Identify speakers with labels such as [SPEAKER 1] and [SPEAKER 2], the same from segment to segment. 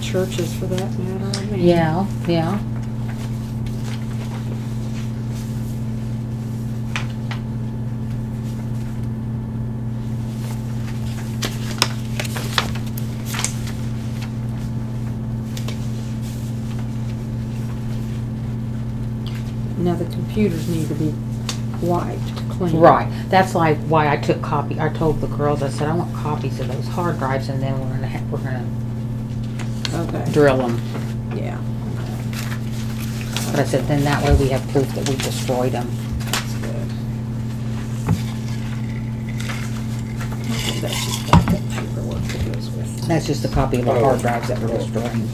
[SPEAKER 1] churches for that matter, I mean.
[SPEAKER 2] Yeah, yeah.
[SPEAKER 1] Now, the computers need to be wiped, cleaned.
[SPEAKER 2] Right, that's like why I took copy, I told the girls, I said, I want copies of those hard drives and then we're gonna, ha- we're gonna
[SPEAKER 1] Okay,
[SPEAKER 2] drill them.
[SPEAKER 1] yeah.
[SPEAKER 2] But I said, then that way we have proof that we destroyed them.
[SPEAKER 1] That's good. Okay, That's just got that paperwork that goes with it.
[SPEAKER 2] That's just a copy of the hard drives that were destroyed.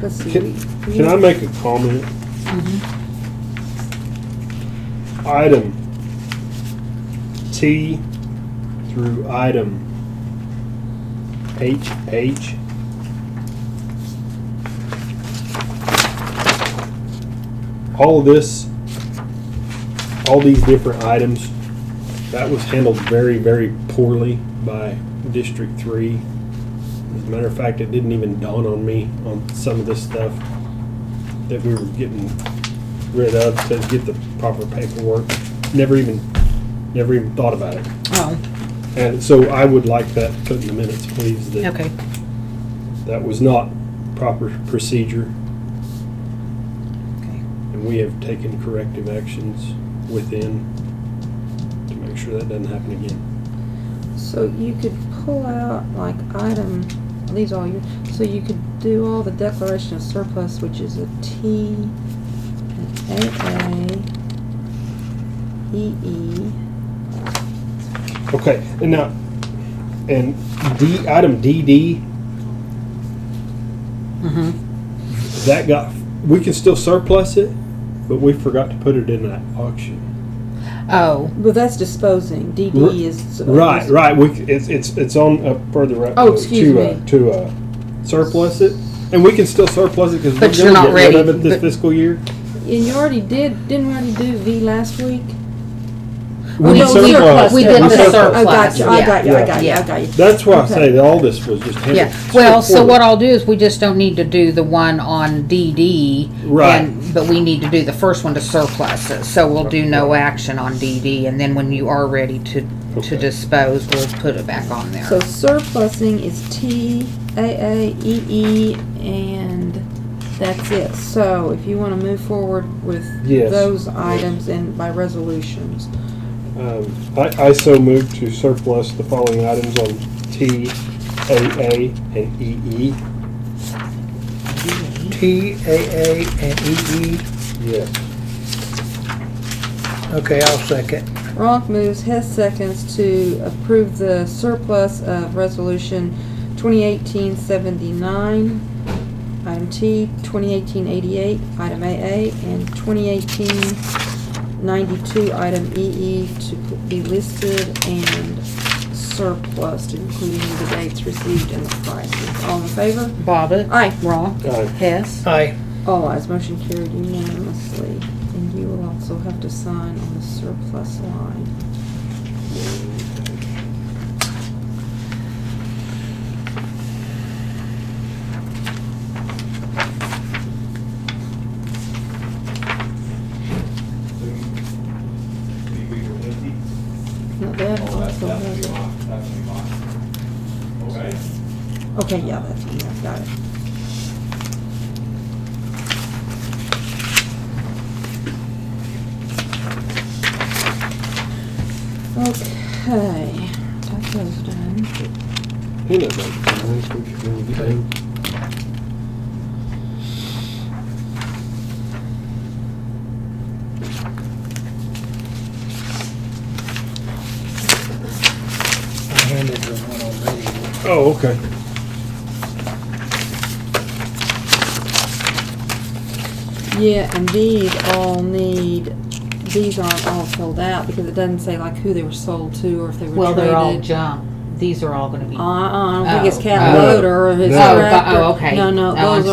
[SPEAKER 1] Let's see.
[SPEAKER 3] Can,
[SPEAKER 1] we-
[SPEAKER 3] can I make a comment? Item T through item HH. All this, all these different items, that was handled very, very poorly by District Three. As a matter of fact, it didn't even dawn on me on some of this stuff that we were getting rid of to get the proper paperwork. Never even, never even thought about it.
[SPEAKER 2] Oh,
[SPEAKER 3] And so I would like that put in the minutes, please, that
[SPEAKER 2] okay.
[SPEAKER 3] that was not proper procedure
[SPEAKER 2] Okay.
[SPEAKER 3] and we have taken corrective actions within to make sure that doesn't happen again.
[SPEAKER 1] So you could pull out like item, are these all your, so you could do all the declaration of surplus, which is a T, an AA, E EE.
[SPEAKER 3] Okay, and now, and D, item DD,
[SPEAKER 2] Mm-hmm,
[SPEAKER 3] that got, we can still surplus it, but we forgot to put it in that auction.
[SPEAKER 2] oh,
[SPEAKER 1] Well, that's disposing.
[SPEAKER 3] R-
[SPEAKER 1] DD is.
[SPEAKER 3] Right, right. We c- it's it's it's on uh, further up.
[SPEAKER 1] Oh,
[SPEAKER 3] to-
[SPEAKER 1] excuse
[SPEAKER 3] to, Uh,
[SPEAKER 1] me.
[SPEAKER 3] to uh, surplus it, and we can still surplus it because
[SPEAKER 2] But
[SPEAKER 3] we're
[SPEAKER 2] you're not
[SPEAKER 3] gonna get rid of
[SPEAKER 2] ready,
[SPEAKER 3] it this
[SPEAKER 2] but-
[SPEAKER 3] fiscal year.
[SPEAKER 1] And you already did, didn't we already do V last week? Oh,
[SPEAKER 2] We
[SPEAKER 1] no,
[SPEAKER 2] did-
[SPEAKER 3] surplus.
[SPEAKER 2] we did
[SPEAKER 3] We
[SPEAKER 2] the
[SPEAKER 3] surplus.
[SPEAKER 1] I
[SPEAKER 2] surplus.
[SPEAKER 1] got you, Oh, I
[SPEAKER 2] yeah.
[SPEAKER 1] got you, I got you,
[SPEAKER 2] Yeah.
[SPEAKER 1] I got you.
[SPEAKER 3] That's why I
[SPEAKER 1] Okay.
[SPEAKER 3] say that all this was just handled
[SPEAKER 2] Yeah, well, so what
[SPEAKER 3] straightforward.
[SPEAKER 2] I'll do is we just don't need to do the one on DD.
[SPEAKER 3] Right.
[SPEAKER 2] and- But we need to do the first one to surplus it, so we'll do no action on DD, and then when you are ready to, to
[SPEAKER 3] Okay.
[SPEAKER 2] dispose, we'll put it back on
[SPEAKER 1] So
[SPEAKER 2] there.
[SPEAKER 1] surplusing is T, A, A, E, E, and that's it. So if you wanna move forward with
[SPEAKER 3] Yes.
[SPEAKER 1] those items and by resolutions.
[SPEAKER 3] um, I, I so moved to surplus the following items on T, AA, and E EE.
[SPEAKER 4] T, A, A, and E, E.
[SPEAKER 3] Yes.
[SPEAKER 4] Okay, I'll second.
[SPEAKER 1] Ronk moves, Hess seconds to approve the surplus of resolution 2018-79, item T, 2018-88, item AA, and 2018-92, item EE to be listed and surplus, including the dates received and the prices. All in favor?
[SPEAKER 2] Bobbit?
[SPEAKER 1] Aye.
[SPEAKER 2] Wrong?
[SPEAKER 3] Aye.
[SPEAKER 2] Hess?
[SPEAKER 4] Aye.
[SPEAKER 1] All ayes, motion carried unanimously. And you will also have to sign on the surplus line.
[SPEAKER 3] Uh,
[SPEAKER 1] No, that also has it.
[SPEAKER 5] Okay.
[SPEAKER 1] Okay, yeah, that's on there, got it. Okay, that goes done.
[SPEAKER 3] Peanut butter. Nice, we should really get in.
[SPEAKER 4] I handed her one already.
[SPEAKER 3] Oh, okay.
[SPEAKER 1] Yeah, and these all need, these aren't all filled out because it doesn't say like who they were sold to or if they were
[SPEAKER 2] Well, they're all
[SPEAKER 1] traded.
[SPEAKER 2] junk. These are all gonna be.
[SPEAKER 1] Uh-uh, I don't think it's
[SPEAKER 2] Oh,
[SPEAKER 1] cat
[SPEAKER 3] oh.
[SPEAKER 1] loader or his
[SPEAKER 3] No. Oh,
[SPEAKER 2] but-
[SPEAKER 1] tractor.
[SPEAKER 2] oh, okay.
[SPEAKER 1] No, no,
[SPEAKER 2] Oh, I'm
[SPEAKER 1] those